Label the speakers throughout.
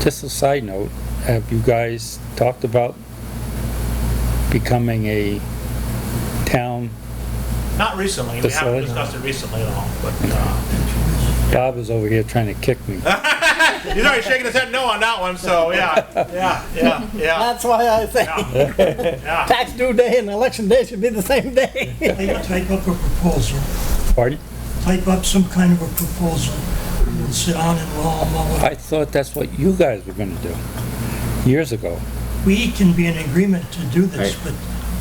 Speaker 1: Just a side note, have you guys talked about becoming a town?
Speaker 2: Not recently, we haven't
Speaker 1: Facility?
Speaker 2: discussed it recently at all, but, uh,
Speaker 1: Bob is over here trying to kick me.
Speaker 2: he's already shaking his head no on that one, so, yeah, yeah, yeah, yeah,
Speaker 3: That's why I say
Speaker 2: yeah, yeah.
Speaker 3: tax due day and election day should be the same day.
Speaker 4: They type up a proposal,
Speaker 1: Pardon?
Speaker 4: type up some kind of a proposal, and sit on and mull them over.
Speaker 1: I thought that's what you guys were gonna do, years ago.
Speaker 4: We can be in agreement to do this, but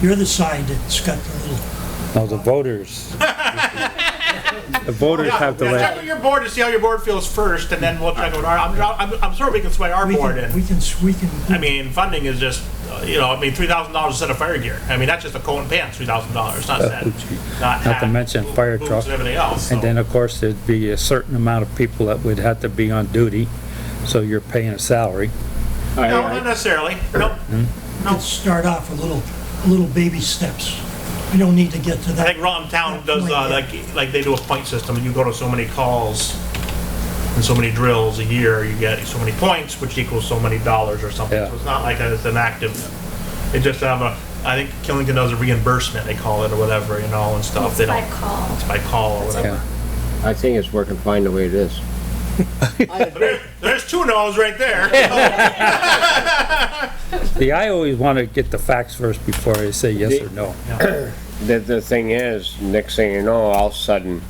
Speaker 4: you're the side that's got the little,
Speaker 1: No, the voters. The voters
Speaker 2: Yeah,
Speaker 1: have to
Speaker 2: Check
Speaker 1: let,
Speaker 2: with your board to see how your board feels first, and then we'll check with our, I'm, I'm, I'm sure we can sway our
Speaker 4: we
Speaker 2: board
Speaker 4: can, we
Speaker 2: in.
Speaker 4: can, we can.
Speaker 2: I mean, funding is just, uh, you know, I mean, three thousand dollars a set of fire gear, I mean, that's just a coat and pants, three thousand dollars, not that, not
Speaker 1: Uh, to
Speaker 2: hat,
Speaker 1: mention fire
Speaker 2: boots
Speaker 1: truck.
Speaker 2: and everything else,
Speaker 1: and
Speaker 2: so.
Speaker 1: then, of course, there'd be a certain amount of people that would have to be on duty, so you're paying a salary.
Speaker 2: No, not necessarily, nope.
Speaker 4: Let's start off with little, little baby steps. We don't need to get to
Speaker 2: I
Speaker 4: that.
Speaker 2: think Rotten Town does, uh, like, like they do a point system, and you go to so many calls and so many drills a year, you get so many points, which equals so many dollars or something.
Speaker 1: Yeah.
Speaker 2: So it's not like it's an active, they just have a, I think Killington does a reimbursement, they call it, or whatever, you know, and stuff. They
Speaker 5: It's by
Speaker 2: don't,
Speaker 5: call.
Speaker 2: it's by call or whatever.
Speaker 1: Yeah.
Speaker 6: I think it's working fine the way it is.
Speaker 3: I agree.
Speaker 2: There's two no's right there.
Speaker 1: The, I always wanna get the facts first before I say yes or no.
Speaker 6: The, the thing is, next thing you know, all of a sudden,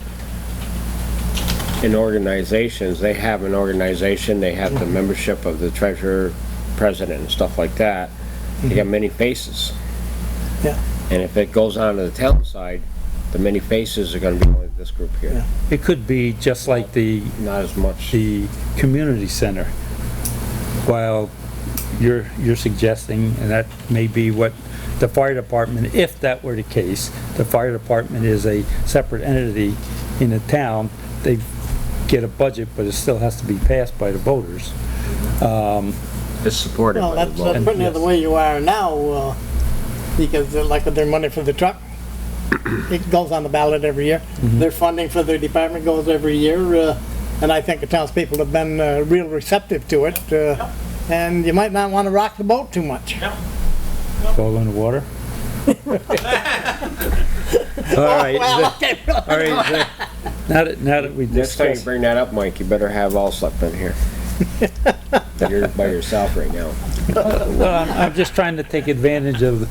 Speaker 6: in organizations, they have an organization, they have the membership of the treasurer, president, and stuff like that. They got many faces.
Speaker 3: Yeah.
Speaker 6: And if it goes on to the town side, the many faces are gonna be only this group here,
Speaker 1: It could be just like the
Speaker 6: not as much.
Speaker 1: the community center. While you're, you're suggesting, and that may be what the fire department, if that were the case, the fire department is a separate entity in the town, they get a budget, but it still has to be passed by the voters.
Speaker 6: It's supported
Speaker 3: Well,
Speaker 6: by the
Speaker 3: that's,
Speaker 6: vote.
Speaker 3: that's pretty much the way you are now, uh, because uh, like with their money for the truck, it goes on the ballot every year. Their funding for their department goes every year, uh, and I think the townspeople have been, uh, real receptive to it. uh, And you might not wanna rock the boat too much.
Speaker 1: Fall in the water? All right,
Speaker 3: Well,
Speaker 1: all
Speaker 3: okay,
Speaker 1: right. Zach. Now that, now that we
Speaker 6: Next time you
Speaker 1: discussed,
Speaker 6: bring that up, Mike, you better have Allsup in here. You're by yourself right now.
Speaker 1: Well, I'm, I'm just trying to take advantage of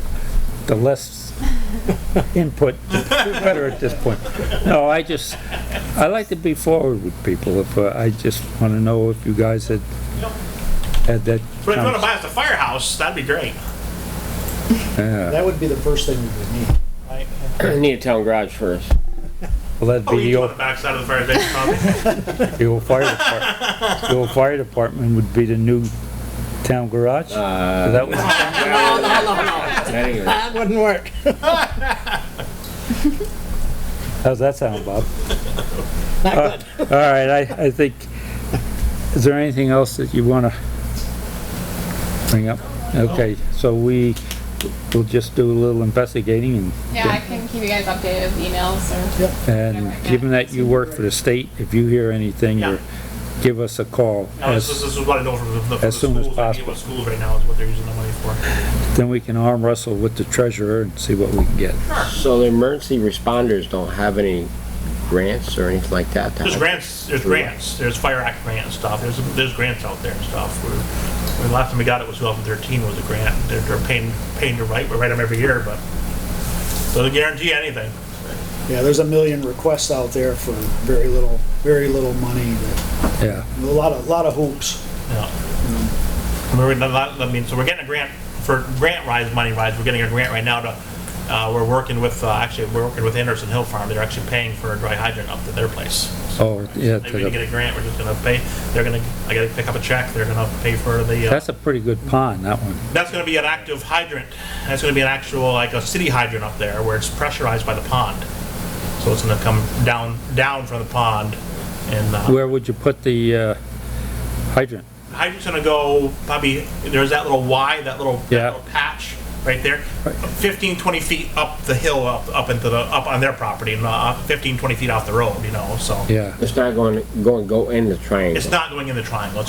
Speaker 1: the less input, the better at this point. No, I just, I like to be forward with people, if, uh, I just wanna know if you guys had, had that.
Speaker 2: But if you wanna
Speaker 1: conversation.
Speaker 2: buy us a firehouse, that'd be great.
Speaker 7: That would be the first thing we would need.
Speaker 2: Right?
Speaker 6: Need a town garage first.
Speaker 1: Well, that'd
Speaker 2: Oh,
Speaker 1: be the
Speaker 2: each on the
Speaker 1: old,
Speaker 2: backside of the fire station, probably.
Speaker 1: the old fire department, the old fire department would be the new town garage?
Speaker 6: Uh,
Speaker 1: So that was-
Speaker 6: Anyway.
Speaker 3: that wouldn't work.
Speaker 1: How's that sound, Bob? Uh,
Speaker 3: Not good.
Speaker 1: All right, I, I think, is there anything else that you want to bring up? Okay, so we will just do a little investigating
Speaker 8: Yeah, I can keep you guys updated with emails or.
Speaker 1: and, and given that you work for the state, if you hear anything,
Speaker 2: Yeah.
Speaker 1: you're- give us a call.
Speaker 2: No, this is,
Speaker 1: as-
Speaker 2: this is what I know from the, from the
Speaker 1: as soon as
Speaker 2: schools, I mean,
Speaker 1: possible.
Speaker 2: what schools right now is what they're using the money for.
Speaker 1: Then we can arm wrestle with the treasurer and see what we can get.
Speaker 6: So the emergency responders don't have any grants or anything like that? to
Speaker 2: There's
Speaker 6: help?
Speaker 2: grants, there's grants, there's fire act grant and stuff, there's, there's grants out there and stuff. We're, the last time we got it was 2013 was a grant, they're, they're paying, paying to write, we write them every year, but, so they guarantee anything.
Speaker 7: Yeah, there's a million requests out there for very little, very little money, that-
Speaker 1: Yeah,
Speaker 7: a lot of, lot of hoops.
Speaker 2: Yeah. We're, in a lot- I mean, so we're getting a grant for grant rise, money rise, we're getting a grant right now to, uh, we're working with, uh, actually, we're working with Anderson Hill Farm, they're actually paying for a dry hydrant up to their place.
Speaker 1: oh, yeah, to
Speaker 2: They're gonna
Speaker 1: the-
Speaker 2: get a grant, we're just gonna pay, they're gonna, I gotta pick up a check, they're gonna pay for the, uh,
Speaker 1: that's a pretty good pond, that one.
Speaker 2: that's gonna be an active hydrant. That's gonna be an actual, like a city hydrant up there where it's pressurized by the pond. So it's gonna come down, down from the pond and, uh,
Speaker 1: Where would you put the uh, hydrant?
Speaker 2: hydrant's gonna go probably, there's that little Y, that little, that
Speaker 1: Yeah.
Speaker 2: little patch. right there. 15, 20 feet up the hill, up, up into the, up on their property, and uh, 15, 20 feet off the road, you know, so.
Speaker 1: yeah.
Speaker 6: It's not going, going, go in the triangle.
Speaker 2: It's not going in the triangle, It's